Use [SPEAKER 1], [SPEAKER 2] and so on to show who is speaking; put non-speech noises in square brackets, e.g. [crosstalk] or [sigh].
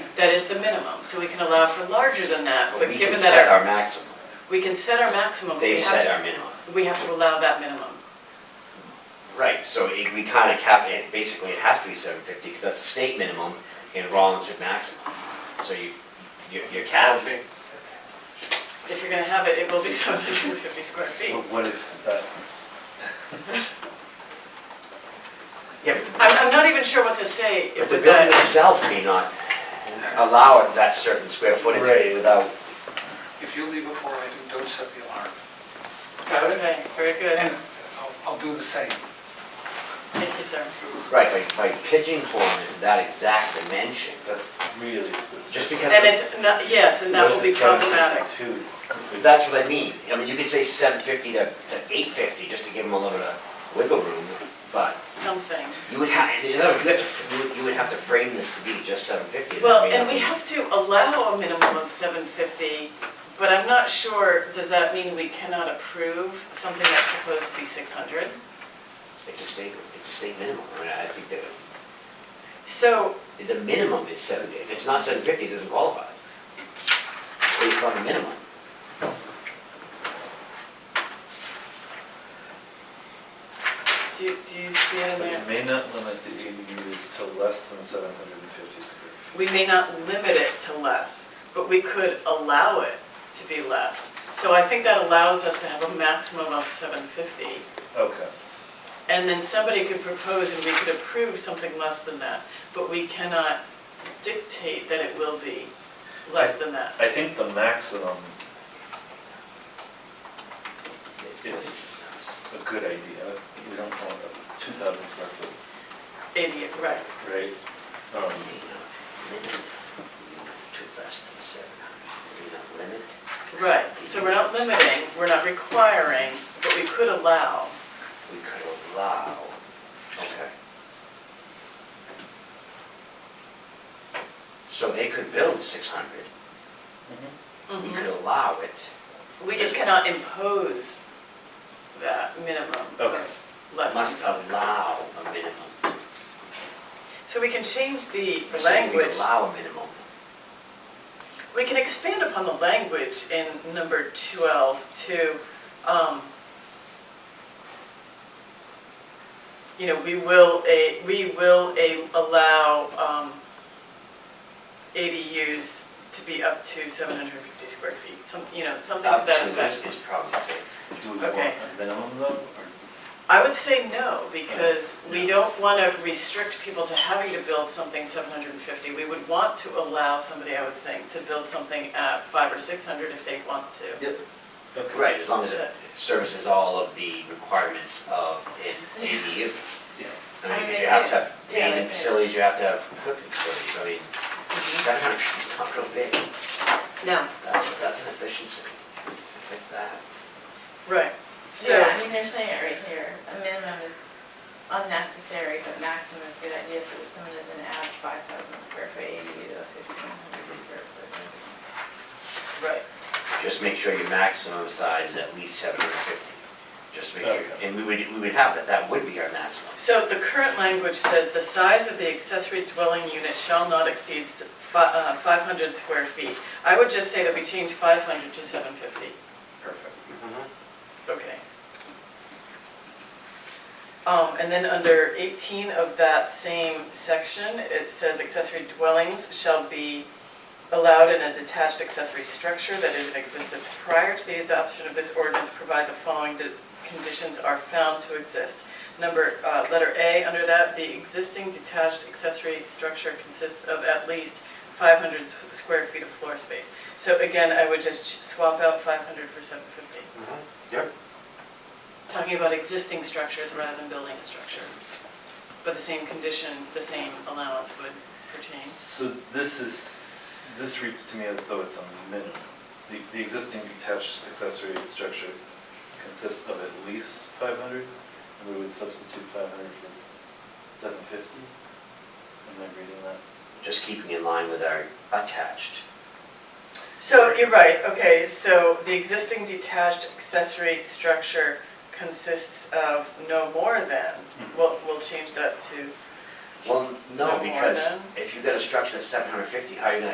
[SPEAKER 1] that is the minimum, so we can allow for larger than that, but
[SPEAKER 2] We can
[SPEAKER 1] given
[SPEAKER 2] set
[SPEAKER 1] that,
[SPEAKER 2] our maximum.
[SPEAKER 1] our- we can set our maximum, but
[SPEAKER 2] They
[SPEAKER 1] we have
[SPEAKER 2] set
[SPEAKER 1] to,
[SPEAKER 2] our minimum.
[SPEAKER 1] we have to allow that minimum.
[SPEAKER 2] Right, so it- we kind of cap it, basically it has to be seven fifty because that's the state minimum and Rollins is maximum. So you, you- you're capped.
[SPEAKER 1] If you're gonna have it, it will be [laughs] seven hundred and fifty square feet.
[SPEAKER 3] But what if that's,
[SPEAKER 2] Yeah, but the-
[SPEAKER 1] I'm, I'm not even sure what to say
[SPEAKER 2] But
[SPEAKER 1] with
[SPEAKER 2] the building
[SPEAKER 1] that.
[SPEAKER 2] itself may not allow it that certain square footage
[SPEAKER 3] Right.
[SPEAKER 2] without,
[SPEAKER 4] If you leave before I do, don't set the alarm.
[SPEAKER 1] Okay, very good,
[SPEAKER 4] And I'll- I'll do the same.
[SPEAKER 1] thank you, sir.
[SPEAKER 2] right, by, by pigeonholing that exact dimension,
[SPEAKER 3] that's really
[SPEAKER 2] just
[SPEAKER 3] specific.
[SPEAKER 2] because,
[SPEAKER 1] And it's not, yes, and that will be problematic.
[SPEAKER 3] problematic.
[SPEAKER 2] that's what I mean. I mean, you could say seven fifty to, to eight fifty, just to give them a little bit of wiggle room, but
[SPEAKER 1] Something.
[SPEAKER 2] you would have, in other words, you have to, f- you would- you would have to frame this to be just seven fifty.
[SPEAKER 1] Well, and we have to allow a minimum of seven fifty, but I'm not sure, does that mean we cannot approve something that's proposed to be six hundred?
[SPEAKER 2] It's a state, it's a state minimum, I mean, I think that,
[SPEAKER 1] So,
[SPEAKER 2] the minimum is seven, if it's not seven fifty, it doesn't qualify. Based on the minimum.
[SPEAKER 1] do, do you see it in
[SPEAKER 3] But
[SPEAKER 1] there?
[SPEAKER 3] you may not limit the ADU to less than seven hundred and fifty square. feet.
[SPEAKER 1] We may not limit it to less, but we could allow it to be less. So I think that allows us to have a maximum of seven fifty.
[SPEAKER 3] Okay,
[SPEAKER 1] And then somebody could propose and we could approve something less than that, but we cannot dictate that it will be less than that.
[SPEAKER 3] I think the maximum is a good idea, we don't want a two thousand square foot,
[SPEAKER 1] Idiot, right.
[SPEAKER 3] right? Um,
[SPEAKER 1] Right, so we're not limiting, we're not requiring, but we could allow.
[SPEAKER 2] We could allow, okay. So they could build six hundred, we could
[SPEAKER 1] Mm-hmm.
[SPEAKER 2] allow it,
[SPEAKER 1] We just cannot impose that minimum
[SPEAKER 3] Okay.
[SPEAKER 1] of less than
[SPEAKER 2] must
[SPEAKER 1] seven.
[SPEAKER 2] allow a minimum.
[SPEAKER 1] So we can change the
[SPEAKER 2] We're saying we
[SPEAKER 1] language.
[SPEAKER 2] Allow a minimum,
[SPEAKER 1] We can expand upon the language in number 12 to, um, you know, we will, a we will a allow um, ADUs to be up to 750 square feet, some, you know, something to
[SPEAKER 2] up
[SPEAKER 1] that
[SPEAKER 2] to this
[SPEAKER 1] effect.
[SPEAKER 2] is probably safe.
[SPEAKER 3] Do we want
[SPEAKER 1] Okay.
[SPEAKER 3] a minimum though, or
[SPEAKER 1] I would say no, because we don't want to restrict people to having to build something 750. We would want to allow somebody, I would think, to build something at 5 or 600 if they want to.
[SPEAKER 3] okay.
[SPEAKER 2] Right, as long as it services all of the requirements of an
[SPEAKER 1] [laughs]
[SPEAKER 2] ADU.
[SPEAKER 3] Yeah.
[SPEAKER 2] I mean,
[SPEAKER 1] I
[SPEAKER 2] you have to have
[SPEAKER 1] mean, yeah,
[SPEAKER 2] bathing
[SPEAKER 1] yeah.
[SPEAKER 2] facilities, you have to have cooking facilities, I mean,
[SPEAKER 1] Mm-hmm.
[SPEAKER 2] seven hundred feet's not real big,
[SPEAKER 5] No.
[SPEAKER 2] that's, that's an efficiency with that.
[SPEAKER 1] Right, so.
[SPEAKER 5] Yeah, I mean, they're saying it right here, a minimum is unnecessary, but maximum is a good idea, so that someone doesn't add five thousand square foot ADU to a fifteen hundred square foot.
[SPEAKER 1] Right,
[SPEAKER 2] Just make sure your maximum size is at least seven hundred fifty, just make sure, and
[SPEAKER 3] Okay.
[SPEAKER 2] we would, we would have that, that would be our maximum.
[SPEAKER 1] so the current language says the size of the accessory dwelling unit shall not exceed s- fi- uh, 500 square feet. I would just say that we change 500 to 750.
[SPEAKER 3] Perfect.
[SPEAKER 1] Okay. Um, and then under 18 of that same section, it says accessory dwellings shall be allowed in a detached accessory structure that is in existence prior to the adoption of this ordinance, provide the following de- conditions are found to exist. Number, uh, letter A, under that, the existing detached accessory structure consists of at least 500 s- square feet of floor space. So again, I would just ch- swap out 500 for 750
[SPEAKER 2] Yep.
[SPEAKER 1] talking about existing structures rather than building a structure. But the same condition, the same allowance would pertain.
[SPEAKER 3] So this is, this reads to me as though it's a minimum. The, the existing detached accessory structure consists of at least five hundred, and we would substitute five hundred for seven fifty? Am I reading that?
[SPEAKER 2] Just keeping in line with our attached,
[SPEAKER 1] So you're right, okay, so the existing detached accessory structure consists of no more than, we'll, we'll change that to
[SPEAKER 2] well,
[SPEAKER 1] No
[SPEAKER 2] no,
[SPEAKER 1] more
[SPEAKER 2] because
[SPEAKER 1] than?
[SPEAKER 2] if you've got a structure that's seven hundred fifty, how are you gonna